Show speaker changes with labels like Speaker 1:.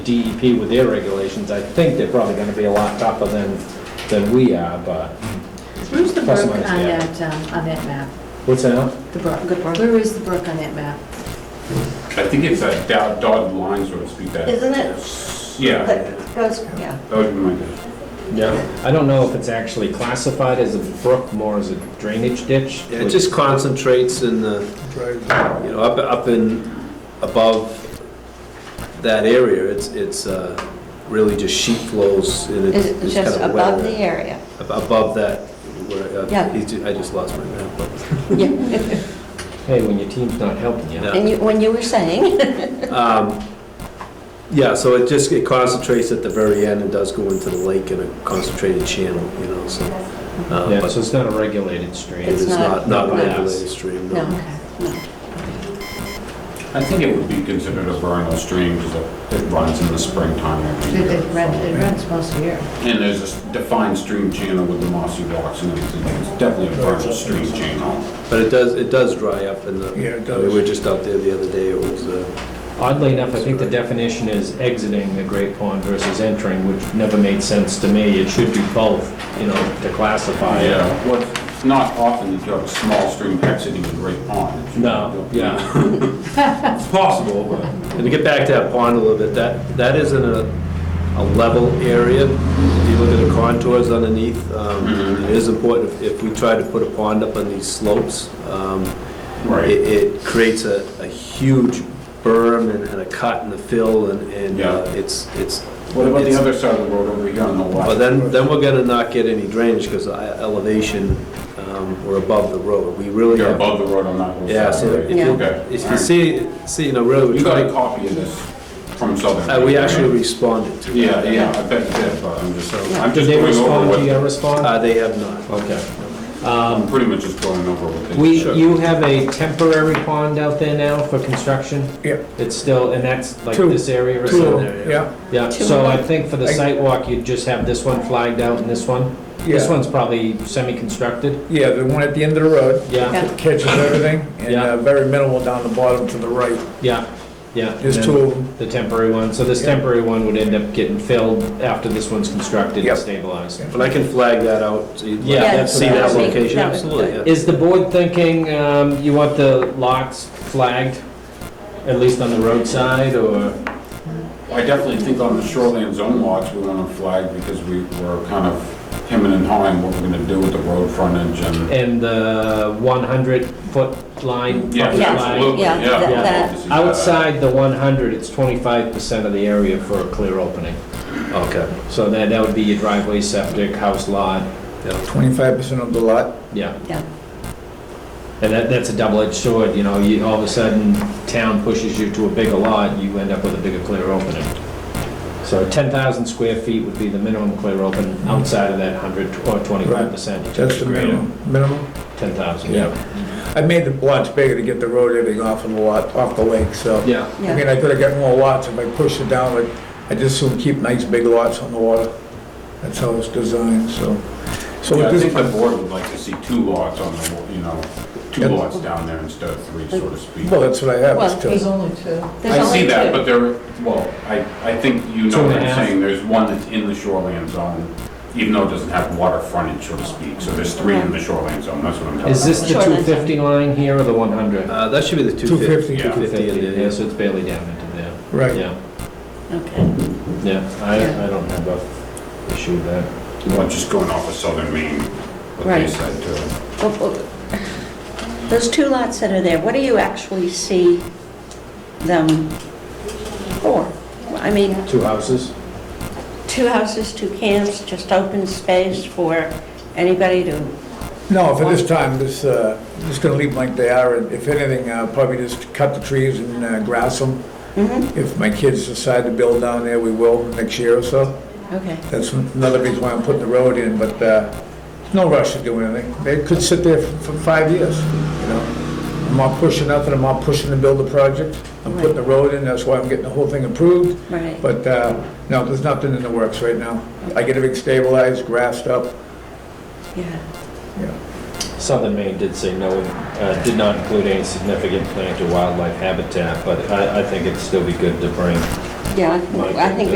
Speaker 1: DEP E with their regulations, I think they're probably gonna be a lot tougher than, than we are, but,
Speaker 2: Where's the brook
Speaker 1: Plus
Speaker 2: on
Speaker 1: or minus, yeah.
Speaker 2: that, um, on that map?
Speaker 1: what's that?
Speaker 2: The brook, good brook. Where is the brook on that map?
Speaker 3: I think it's a dot- dotted line, so to speak, that.
Speaker 4: Isn't it?
Speaker 3: Yeah.
Speaker 4: That Goes, yeah.
Speaker 3: That would be my guess.
Speaker 1: Yeah. I don't know if it's actually classified as a brook, more as a drainage ditch.
Speaker 5: Yeah, It just concentrates in the, you know, up, up in, above that area, it's, it's uh, really just sheet flows and it-
Speaker 4: Is it
Speaker 5: it's kind
Speaker 4: just
Speaker 5: of
Speaker 4: above the
Speaker 5: wet.
Speaker 4: area?
Speaker 5: Above that, where,
Speaker 4: Yeah.
Speaker 5: uh, he's ju- I just lost my map, but
Speaker 4: Yeah.
Speaker 1: Hey, when your team's not helping you.
Speaker 5: Yeah.
Speaker 4: And you, when you were saying,
Speaker 5: Um, Yeah, so it just, it concentrates at the very end and does go into the lake in a concentrated channel, you know, so. uh,
Speaker 1: Yeah,
Speaker 5: but
Speaker 1: so it's not a regulated stream.
Speaker 5: It is
Speaker 4: It's
Speaker 5: not,
Speaker 1: not
Speaker 4: not-
Speaker 5: not a
Speaker 1: by us.
Speaker 5: regulated stream,
Speaker 4: no,
Speaker 5: no.
Speaker 4: no.
Speaker 3: I think it would be considered a vernal stream because it runs in the springtime
Speaker 2: It
Speaker 3: every year.
Speaker 2: it runs, it runs most year.
Speaker 3: And there's a s- defined stream channel with the mossy rocks and everything. It's definitely a vernal stream channel.
Speaker 5: But it does, it does dry up in the,
Speaker 6: Yeah, it
Speaker 5: I mean,
Speaker 6: does.
Speaker 5: we were just out there the other day, it was, uh,
Speaker 1: Oddly enough, I think the definition is exiting the Great Pond versus entering, which never made sense to me. It should be both, you know, to classify it.
Speaker 3: Yeah, well, it's uh, not often that you have a small stream exiting a great pond. It's-
Speaker 1: No, yeah.
Speaker 3: It's possible, but.
Speaker 5: and to get back to that pond a little bit, that, that isn't a, a level area. If you look at the contours underneath, um,
Speaker 3: Mhm.
Speaker 5: it is important, if- if we try to put a pond up on these slopes, um,
Speaker 3: Right.
Speaker 5: it, it creates a, a huge berm and and a cut in the fill and, and uh,
Speaker 3: Yeah.
Speaker 5: it's, it's.
Speaker 3: What about the
Speaker 5: it's-
Speaker 3: other side of the road over here on the
Speaker 5: But
Speaker 3: left?
Speaker 5: then, then we're gonna not get any drainage because elevation, um, we're above the road. We really
Speaker 3: You're
Speaker 5: have
Speaker 3: above the road on that whole side.
Speaker 5: Yeah, so
Speaker 3: right?
Speaker 5: if you,
Speaker 3: Okay,
Speaker 5: if
Speaker 3: all
Speaker 5: you
Speaker 3: right.
Speaker 5: see, see, you know, really, we're
Speaker 3: You got a
Speaker 5: trying,
Speaker 3: copy of this from Southern?
Speaker 5: uh, we
Speaker 3: right?
Speaker 5: actually responded to. it.
Speaker 3: Yeah, yeah, I bet you did, but I'm just, I'm
Speaker 1: Did
Speaker 3: just
Speaker 1: they
Speaker 3: going over
Speaker 1: respond to
Speaker 3: what,
Speaker 1: your response?
Speaker 5: Uh, they have not.
Speaker 1: Okay.
Speaker 3: I'm pretty much just going over what they.
Speaker 1: We,
Speaker 3: Sure.
Speaker 1: you have a temporary pond out there now for construction?
Speaker 6: Yeah.
Speaker 1: It's still, and that's like
Speaker 6: Two.
Speaker 1: this area or
Speaker 6: Two of
Speaker 1: something?
Speaker 6: them, yeah.
Speaker 1: Yeah,
Speaker 4: Two.
Speaker 1: so I think for the
Speaker 6: I-
Speaker 1: sidewalk, you'd just have this one flagged out and this one? This
Speaker 6: Yeah.
Speaker 1: one's probably semi-constructed?
Speaker 6: Yeah, the one at the end of the road
Speaker 1: Yeah,
Speaker 6: that catches everything, and
Speaker 1: Yeah.
Speaker 6: uh, very minimal down the bottom to the right.
Speaker 1: yeah, yeah. and
Speaker 6: There's
Speaker 1: then
Speaker 6: two of them.
Speaker 1: The temporary one, so this
Speaker 6: Yeah.
Speaker 1: temporary one would end up getting filled after this one's constructed
Speaker 6: Yep.
Speaker 1: and stabilized.
Speaker 6: Yeah.
Speaker 5: But I can flag that out, so you'd
Speaker 1: Yeah,
Speaker 5: like to
Speaker 1: that's
Speaker 5: see
Speaker 1: what I
Speaker 5: that
Speaker 1: was
Speaker 4: thinking.
Speaker 5: location,
Speaker 4: That would-
Speaker 5: absolutely, yeah.
Speaker 1: Is the board thinking um, you want the lots flagged, at least on the roadside, or?
Speaker 3: I definitely think on the shoreline zone lots, we want to flag because we were kind of hemming and hawing what we're going to do with the road frontage and.
Speaker 1: And the 100-foot line?
Speaker 3: Yeah,
Speaker 1: property
Speaker 4: Yeah,
Speaker 1: line?
Speaker 3: absolutely,
Speaker 4: yeah,
Speaker 3: yeah.
Speaker 4: that-
Speaker 3: I'd love
Speaker 4: that-
Speaker 3: to see that.
Speaker 1: Outside the 100, it's 25% of the area for a clear opening.
Speaker 5: Okay,
Speaker 1: So that, that would be your driveway, septic, house lot,
Speaker 5: yeah.
Speaker 6: Twenty-five percent of the lot,
Speaker 1: yeah.
Speaker 4: Yeah.
Speaker 1: And that, that's a double-edged sword, you know, you, all of a sudden, town pushes you to a bigger lot, you end up with a bigger clear opening. So ten thousand square feet would be the minimum clear open outside of that hundred or twenty-five percent.
Speaker 6: that's the minimum, minimum.
Speaker 1: Ten thousand,
Speaker 6: Yeah.
Speaker 1: yeah.
Speaker 6: I made the lots bigger to get the road everything off of the lot, off the lake, so.
Speaker 1: Yeah.
Speaker 6: I mean, I could've got more lots if I pushed it down, but I just soon keep nice big lots on the water. That's how it's designed, so. So
Speaker 3: Yeah,
Speaker 6: with
Speaker 3: I think the
Speaker 6: this,
Speaker 3: board would like to see two lots on the, wa- you know, two
Speaker 6: Yeah.
Speaker 3: lots down there instead of three, so to speak.
Speaker 6: well, that's what I have,
Speaker 4: Well,
Speaker 6: it's just.
Speaker 2: only two.
Speaker 4: There's
Speaker 3: I see
Speaker 4: only two.
Speaker 3: that, but there, well, I, I think
Speaker 1: Two
Speaker 3: you know what
Speaker 1: and a
Speaker 3: I'm
Speaker 1: half.
Speaker 3: saying, there's one that's in the shoreline zone, even though it doesn't have water frontage, so to speak, so there's three in the shoreline zone, that's what I'm talking
Speaker 1: Is
Speaker 3: about.
Speaker 1: this the
Speaker 4: Shoreline.
Speaker 1: two fifty line here or the one hundred?
Speaker 5: Uh, that should be the two fifty.
Speaker 6: 250.
Speaker 3: Yeah.
Speaker 5: 250 in there,
Speaker 1: Yeah,
Speaker 5: yeah.
Speaker 1: so it's barely down into there,
Speaker 6: Right.
Speaker 1: yeah,
Speaker 4: Okay.
Speaker 1: yeah, I,
Speaker 2: Yeah.
Speaker 1: I don't have a issue with that.
Speaker 3: Well, just going off of Southern Maine, what they
Speaker 4: Right.
Speaker 3: said too.
Speaker 4: Well, well, Oh, Those two lots that are there, what do you actually see them for? I mean,
Speaker 1: Two houses?
Speaker 4: two houses, two camps, just open space for anybody to,
Speaker 6: No, for this time, this, uh, just gonna leave them like they are, and if anything, uh, probably just cut the trees and uh, grass them.
Speaker 4: Mhm.
Speaker 6: If my kids decide to build down there, we will next year or so.
Speaker 4: okay.
Speaker 6: That's another reason why I'm putting the road in, but, uh, no rush to do anything. They could sit there for five years, you know? I'm not pushing nothing, I'm not pushing to build a project. I'm putting the road in, that's why I'm getting the whole thing approved.
Speaker 4: Right.
Speaker 6: But, uh, no, there's nothing in the works right now. I get everything stabilized, grassed up,
Speaker 4: Yeah.
Speaker 6: you know.
Speaker 1: Southern Maine did say no, uh, did not include any significant plant or wildlife habitat, but I, I think it'd still be good to bring
Speaker 4: Yeah, I think